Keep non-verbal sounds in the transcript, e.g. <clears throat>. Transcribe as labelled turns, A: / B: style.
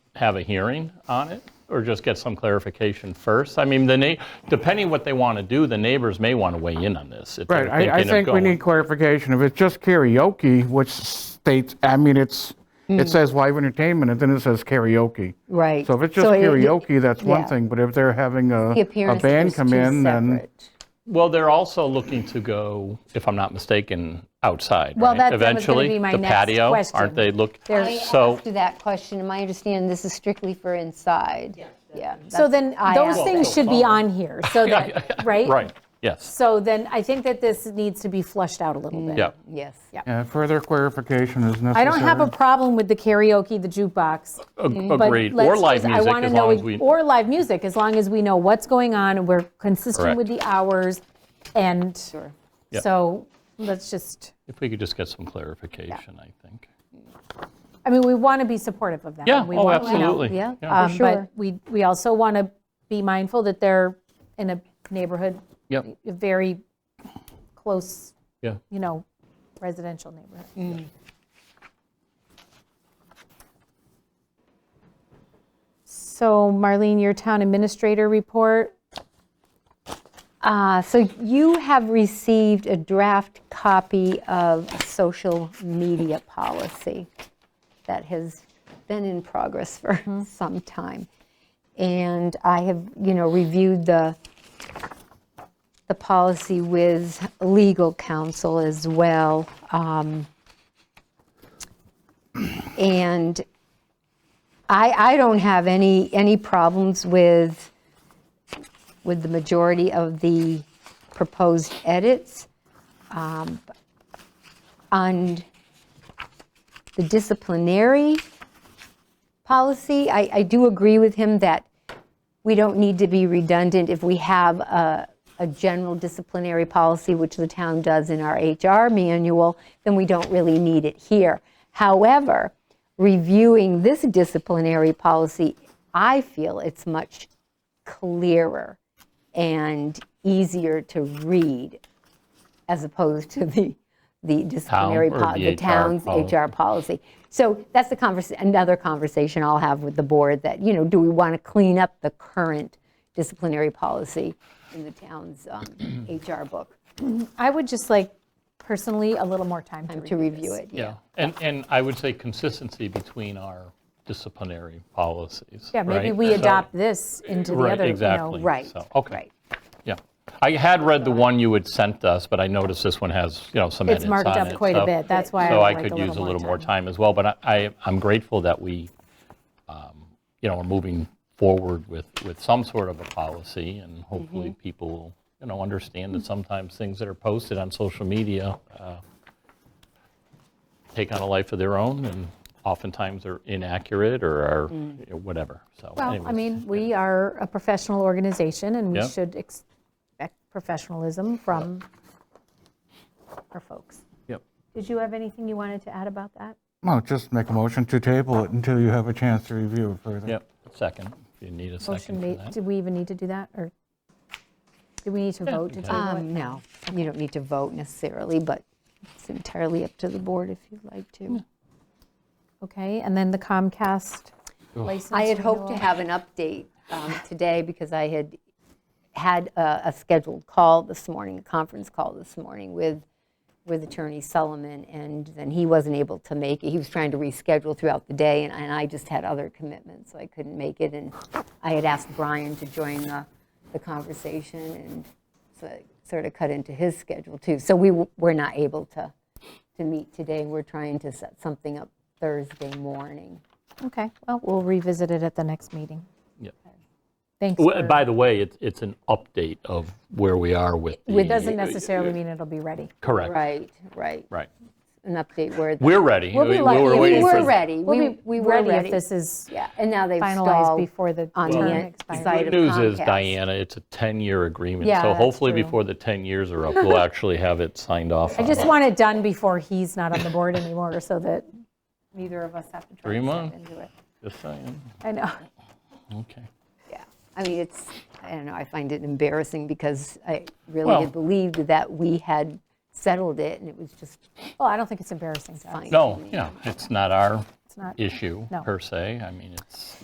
A: have a hearing on it or just get some clarification first? I mean, the, na- depending what they want to do, the neighbors may want to weigh in on this. if they're
B: Right, I, I
A: thinking of
B: think we
A: going-
B: need clarification. If it's just karaoke, which states, I mean, it's, it says live entertainment, and then it says karaoke.
C: Hmm. Right.
B: So if it's just
C: So it-
B: karaoke, that's one
C: yeah.
B: thing, but if they're having a, a
C: The appearance
B: band
C: was
B: come in,
C: too
B: then.
C: separate.
A: Well, they're also looking to go, if I'm not mistaken, outside,
C: Well,
A: right?
C: that- that was gonna be my next
A: Eventually, the patio,
C: question.
A: aren't they look,
C: I
A: so,
C: asked you that question, and my understanding, this is strictly for inside. Yeah.
D: So
C: that's-
D: then,
C: I
D: those
C: asked
D: things
C: it.
D: should be on here,
A: <laughs>
D: so that, right?
A: right, yes,
D: So then, I think that this needs to be flushed out a little bit.
A: yeah.
C: Yes.
B: Yeah, further clarification is necessary.
D: I don't have a problem with the karaoke, the jukebox.
A: Ag-
D: mm, but
A: Agreed, or
D: let's
A: live
D: just- I
A: music,
D: wanna
A: as
D: know
A: long as
D: ex-
A: we,
D: Or live music, as long as we know what's going on and we're consistent with
A: Correct.
D: the hours. And
A: Yep.
D: so let's just,
A: if we could just get some clarification, I think.
D: I mean, we want to be supportive of them.
A: Yeah,
D: We
A: oh,
D: want- you know,
A: absolutely.
C: yeah,
A: Yeah.
D: um, But we, we also want to be mindful that they're in a neighborhood,
A: Yep,
D: a very close,
A: yeah.
D: you know, residential neighborhood.
A: Mm.
D: So Marlene, your town administrator report,
C: Uh, So you have received a draft copy of a social media policy that has been in progress for some time. And I have, you know, reviewed the, the policy with legal counsel as well. Um, And I, I don't have any, any problems with with the majority of the proposed edits. Um, On the disciplinary policy, I, I do agree with him that we don't need to be redundant if we have a, a general disciplinary policy, which the town does in our HR manual, then we don't really need it here. However, reviewing this disciplinary policy, I feel it's much clearer and easier to read as opposed to the, the disciplinary,
A: or
C: pol-
A: the
C: the
A: HR
C: town's
A: policy.
C: HR policy. So that's the convers, another conversation I'll have with the board that, you know, do we want to clean up the current disciplinary policy in the town's
A: <clears throat>
C: um, HR book
D: I would just like personally a little more time to
C: to
D: review
C: review
D: this.
C: it?
A: Yeah, and, and I would say consistency between our disciplinary policies.
D: Yeah, maybe
A: right?
D: we
A: So-
D: adopt this into the
A: Right,
D: other, you know.
A: exactly.
C: Right,
A: So, okay.
C: right.
A: Yeah. I had read the one you had sent us, but I noticed this one has, you know, some edits
D: It's
A: on it.
D: marked up quite a
A: so-
D: bit, that's why I
A: So
D: would
A: I
D: like
A: could use a little more time as well, but I- I, I'm grateful that we, um, you know, are moving forward with, with some sort of a policy, and hopefully
D: Mm-hmm.
A: people will, you know, understand that sometimes things that are posted on social media uh, take on a life of their own, and oftentimes are inaccurate or are, you know, whatever, so.
D: Mm. Well, I
A: anyways.
D: mean, we are a professional organization, and we
A: Yeah.
D: should expect professionalism from our folks.
A: Yep.
D: Did you have anything you wanted to add about that?
B: Well, just make a motion to table it until you have a chance to review it further.
A: Yep, second, if you need a
D: Motion
A: second for
D: made,
A: that.
D: did we even need to do that, or do we need to vote to table it?
C: Um, No, you don't need to vote necessarily, but it's entirely up to the board if you'd like to.
D: Okay, and then the Comcast license
C: I had hoped to
D: renewal.
C: have an update um, today because I had had a a scheduled call this morning, a conference call this morning with, with Attorney Solomon, and then he wasn't able to make it. He was trying to reschedule throughout the day, and- and I just had other commitments, so I couldn't make it. And I had asked Brian to join the, the conversation, and so it sort of cut into his schedule too. So we w- were not able to, to meet today. We're trying to set something up Thursday morning.
D: Okay, well, we'll revisit it at the next meeting.
A: Yep.
D: Thanks
A: Well,
D: for,
A: By the way, it's, it's an update of where we are with
D: it
A: the,
D: doesn't necessarily mean it'll be ready.
A: correct,
C: Right, right.
A: right.
C: an update where. the-
A: We're ready.
D: We'll be
A: We- we
D: lucky
A: were
D: if
C: We
A: waiting
D: this
A: for
C: were
A: the-
C: ready.
D: We'll
C: We
D: be
C: we were
D: ready
C: ready.
D: if this is
C: Yeah, and now they've
D: finalized
C: stalled
D: before the
C: on the
D: term
C: en-
D: expires.
C: side
A: Good
C: of
A: news is,
C: Comcast.
A: Diana, it's a 10-year agreement.
D: Yeah,
A: So
D: that's
A: hopefully
D: true.
A: before the 10 years
D: <laughs>
A: are up, we'll actually have it signed off
D: I
A: on.
D: just want it done before he's not on the board anymore, so that neither of us have to try
A: Three
D: and step
A: months.
D: into it.
A: Just saying,
D: I know.
A: okay.
C: Yeah, I mean, it's, I don't know, I find it embarrassing because I really
A: Well-
C: had believed that we had settled it and it was just
D: Well, I don't think it's embarrassing to us.
C: fine.
A: No, yeah, it's not our
D: It's not-
A: issue
D: No.
A: per se. I mean, it's,